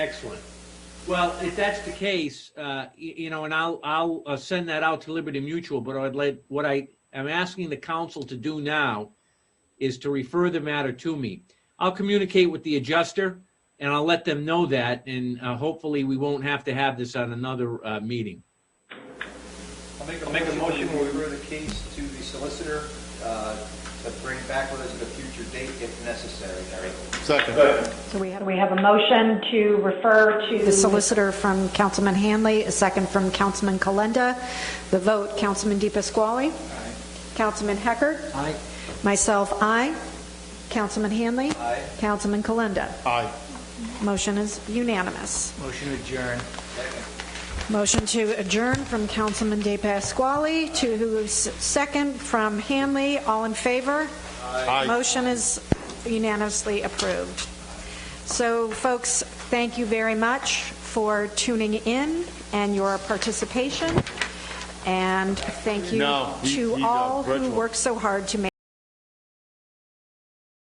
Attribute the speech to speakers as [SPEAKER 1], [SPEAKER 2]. [SPEAKER 1] Excellent. Well, if that's the case, uh, y- you know, and I'll, I'll uh, send that out to Liberty Mutual, but I'd let, what I am asking the council to do now is to refer the matter to me. I'll communicate with the adjuster and I'll let them know that and uh, hopefully we won't have to have this on another uh, meeting.
[SPEAKER 2] I'll make a- I'll make a motion to refer the case to the solicitor uh, to bring back with us at a future date if necessary, Mary.
[SPEAKER 3] Second.
[SPEAKER 4] So we have
[SPEAKER 5] We have a motion to refer to.
[SPEAKER 4] the solicitor from Councilman Hanley, a second from Councilman Kalenda. The vote, Councilman De Pasquale. Councilman Hecker.
[SPEAKER 1] Aye.
[SPEAKER 4] Myself, aye. Councilman Hanley.
[SPEAKER 2] Aye.
[SPEAKER 4] Councilman Kalenda.
[SPEAKER 3] Aye.
[SPEAKER 4] Motion is unanimous.
[SPEAKER 6] Motion adjourn.
[SPEAKER 4] Motion to adjourn from Councilman De Pasquale to who's second from Hanley. All in favor?
[SPEAKER 3] Aye.
[SPEAKER 4] Motion is unanimously approved. So, folks, thank you very much for tuning in and your participation, and thank you
[SPEAKER 3] No, he- he
[SPEAKER 4] to
[SPEAKER 3] done
[SPEAKER 4] all who
[SPEAKER 3] virtual.
[SPEAKER 4] worked so hard to make